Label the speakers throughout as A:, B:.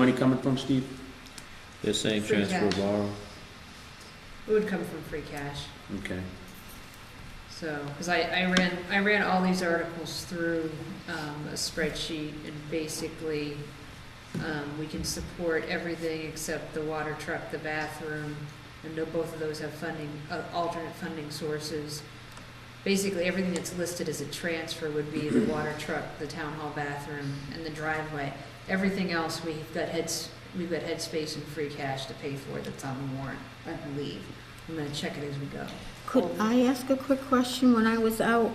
A: Money coming from, Steve?
B: They're saying
C: Free
B: transfer
C: cash.
B: borrow.
C: It would come from free cash,
A: Okay.
C: so, because I, I ran, I ran all these articles through, um, a spreadsheet, and basically, um, we can support everything except the water truck, the bathroom, and no, both of those have funding, uh, alternate funding sources. Basically, everything that's listed as a transfer would be the water truck, the town hall bathroom, and the driveway. Everything else, we've got heads, we've got headspace and free cash to pay for that's on the warrant, I believe. I'm gonna check it as we go.
D: Could I ask a quick question? When I was out,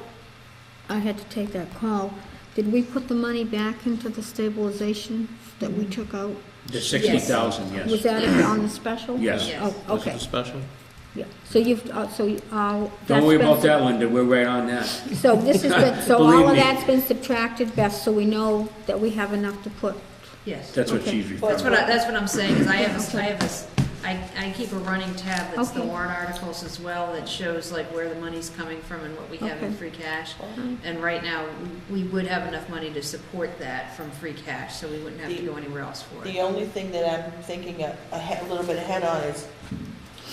D: I had to take that call. Did we put the money back into the stabilization that we took out?
A: The sixty thousand,
D: Was
A: yes.
D: that it on the special?
A: Yes.
C: Yes.
D: Oh,
B: Was it
D: okay,
B: a special?
D: yeah. So you've, uh, so, you- uh.
A: Don't
D: that's
A: worry
D: been
A: about
D: sub-
A: that, Linda, we're right on that.
D: So this has been, so all
A: Believe
D: of
A: me.
D: that's been subtracted, Beth, so we know that we have enough to put.
C: Yes.
A: That's what
D: Okay.
A: she's
C: That's what
A: referring.
C: I, that's what I'm saying, is I have a s I have a s I I keep a running tab that's the
D: Okay.
C: warrant articles as well that shows like where the money's coming from and what we have in
D: Okay.
C: free cash. And right now, we we would have enough money to support that from free cash, so we wouldn't have to go anywhere else for
E: The
C: it.
E: only thing that I'm thinking a, a he- a little bit ahead on is,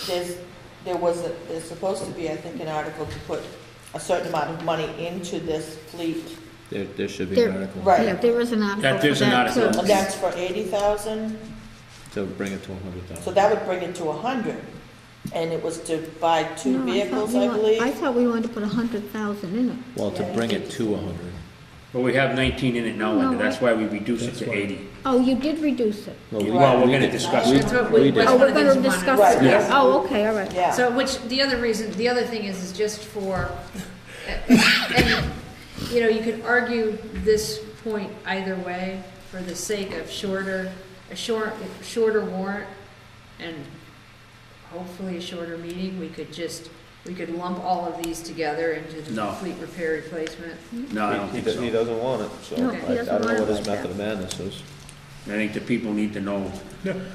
E: there's, there was, a- there's supposed to be, I think, an article to put a certain amount of money into this fleet.
B: There, there should be
D: There-
B: an article
E: Right.
D: Yeah, there is an article
A: That
D: for
A: is an
D: that
A: article.
D: too.
E: And that's for eighty thousand,
B: to bring it to a hundred
E: so
B: thousand.
E: that would bring it to a hundred. And it was to buy
D: No,
E: two
D: I thought
E: vehicles,
D: we
E: I
D: want- I
E: believe.
D: thought we wanted to put a hundred thousand in it.
B: Well, to bring it to a hundred.
A: But we have nineteen in it now, Linda,
D: No,
A: that's why we reduced it
B: That's
A: to
B: why.
A: eighty.
D: Oh, you did reduce it.
B: we-
A: Well, we're
B: we
A: gonna
B: did-
A: discuss
B: we-
A: it.
C: That's what we-
B: we did.
D: Oh,
C: one
D: we're
C: of the things we
D: gonna
C: wanted.
D: discuss
E: Right,
D: that.
E: yes.
D: Oh, okay, all right.
E: Yeah,
C: So which, the other reason, the other thing is, is just for, and, you know, you could argue this point either way for the sake of shorter, a short, shorter warrant and hopefully a shorter meeting, we could just, we could lump all of these together into the
A: No.
C: fleet repair replacement.
A: No, I don't
B: He,
A: think
B: he
A: so.
B: doesn't want it, so
D: No,
B: I
D: he
B: I
D: doesn't
B: don't know
D: want it
B: what
D: like
B: his
D: that.
B: method of madness is.
A: I think the people need to know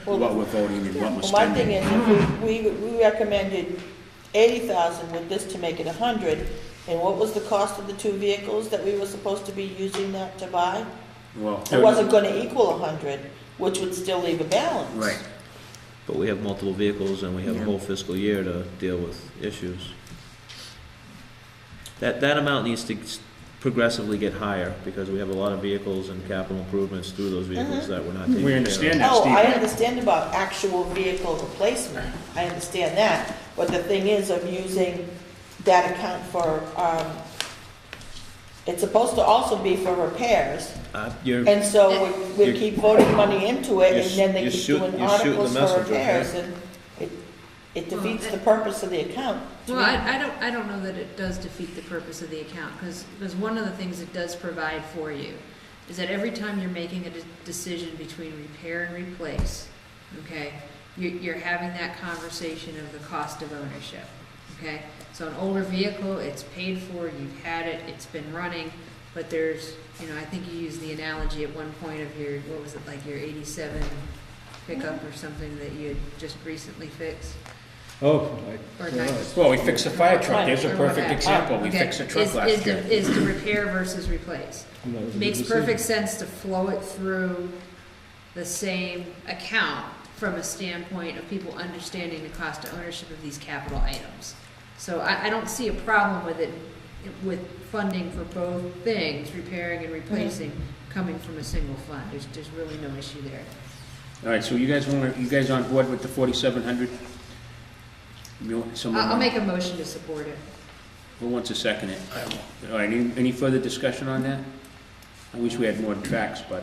A: what we're voting and what we're
E: well, my thing
A: spending.
E: is, if we, we- we recommended eighty thousand with this to make it a hundred. And what was the cost of the two vehicles that we were supposed to be using that to buy?
A: Well,
E: It wasn't gonna equal a hundred, which would still leave a balance.
A: Right,
B: But we have multiple vehicles and we have a
D: Yeah.
B: whole fiscal year to deal with issues. That, that amount needs to s- progressively get higher because we have a lot of vehicles and capital improvements through those vehicles
D: Mm-hmm.
B: that we're not taking care
A: we
B: of.
A: understand that,
E: Oh, I
A: Steve.
E: understand about actual vehicle replacement, I understand that, but the thing is, of using that account for, um, it's supposed to also be for repairs,
B: Uh, you're,
E: and so we, we
B: You're-
E: keep voting money into it, and
B: you're-
E: then they
B: you're
E: keep
B: shoot-
E: doing
B: you're shooting the
E: articles for
B: messenger,
E: repairs,
B: yeah.
E: and it, it defeats the purpose of the account. to
C: Well,
E: me.
C: I, I don't, I don't know that it does defeat the purpose of the account, because, one of the things it does provide for you is that every time you're making a de- decision between repair and replace, okay, you're, you're having that conversation of the cost of ownership, okay? So an older vehicle, it's paid for, you've had it, it's been running, but there's, you know, I think you used the analogy at one point of your, what was it, like your eighty-seven pickup or something that you had just recently fixed?
F: Oh, I,
C: Or not?
A: Well, we fixed a fire truck,
E: Right.
A: there's a perfect
C: Okay.
A: example, we
C: Okay.
A: fixed a
C: Is-
A: truck
C: is
A: last
C: to-
A: year.
C: Is to repair versus replace.
F: I'm not-
C: Makes perfect sense to flow it through the same account from a standpoint of people understanding the cost of ownership of these capital items. So I, I don't see a problem with it, with funding for both things, repairing and replacing, coming from a single fund. There's, there's really no issue there.
A: All right, so you guys want, you guys on board with the forty-seven hundred?
C: I'll, I'll make a motion to support it.
A: Who wants to second it? All right, any, any further discussion on that? I wish we had more tracks, but,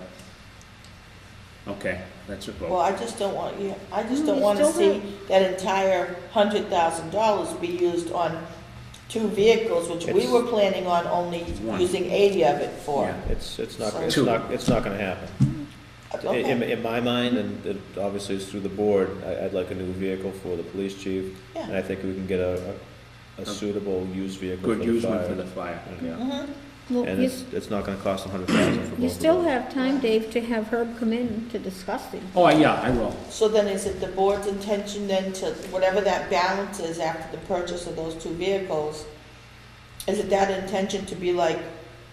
A: okay, that's a
E: Well,
A: vote.
E: I just don't want, you. I just
D: No,
E: don't
D: you
E: wanna
D: still
E: see that entire hundred thousand dollars be used on two vehicles, which we
B: It's-
E: were planning on only
A: One.
E: using eighty of it for.
A: Yeah.
B: It's, it's not, it's
A: Two.
B: not, it's not gonna happen. In- In,
E: Okay,
B: in my mind, and it obviously it's through the board, I, I'd like a new vehicle for the police chief, and
E: yeah.
B: I think we can get a, a- a suitable used vehicle for
A: Good
B: the
A: use one for the
B: fire.
A: fire.
B: Yeah.
E: Mhm.
D: Well,
B: And
D: you,
B: it's, it's not gonna cost a hundred thousand for both of
D: you still
B: them.
D: have time, Dave, to have Herb come in to discuss it.
A: Oh, yeah, I will.
E: So then is it the board's intention then to, whatever that balance is after the purchase of those two vehicles, is it that intention to be like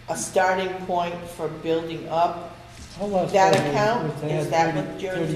E: a starting point for building up That account, is that what you're